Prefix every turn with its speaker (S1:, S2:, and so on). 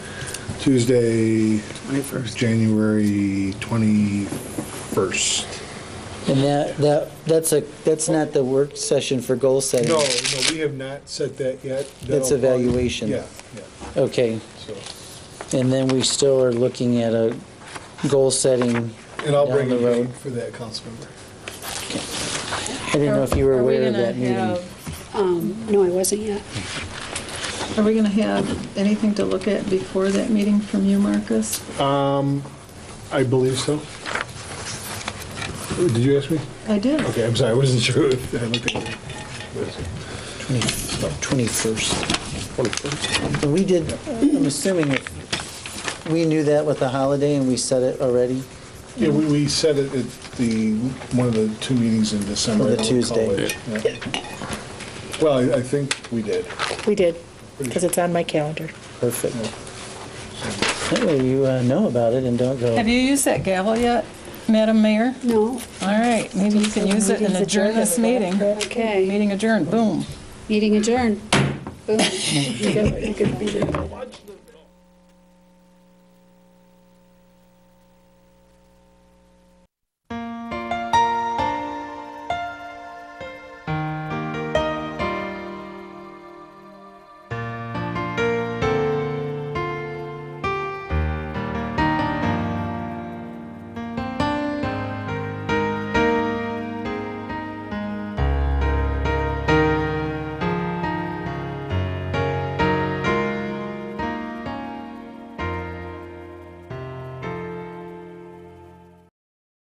S1: Tuesday,
S2: 21st.
S1: January 21st.
S3: And that, that, that's a, that's not the work session for goal setting.
S1: No, no, we have not set that yet.
S3: That's
S1: That'll probably-
S3: evaluation.
S1: Yeah, yeah,
S3: Okay,
S1: so,
S3: and then we still are looking at a goal setting.
S1: and I'll
S3: Down
S1: bring
S3: the
S1: a date
S3: road.
S1: for that, council member.
S3: I didn't know if you were
S4: Are we
S3: aware of
S4: gonna
S3: that meeting.
S4: have-
S5: Um, No, I wasn't yet.
S4: Are we going to have anything to look at before that meeting from you, Marcus?
S1: I believe so. Did you ask me?
S4: I did.
S1: Okay, I'm sorry, I wasn't sure. if I looked at it.
S3: Twenty-first. And we did, I'm assuming if, we knew that with the holiday and we set it already?
S1: Yeah, we, we said it at the, one of the two meetings in December.
S3: On the
S1: I don't recall
S3: Tuesday.
S1: it, yeah. Well, I, I think we did.
S6: We did, because it's on my calendar.
S3: Perfect. That way you uh, know about it and don't go.
S7: Have you used that gavel yet, Madam Mayor?
S5: No,
S7: All right, maybe you can use it and adjourn this meeting.
S5: okay.
S7: Meeting adjourned, boom.
S5: Meeting adjourned. Boom.
S6: You could be there.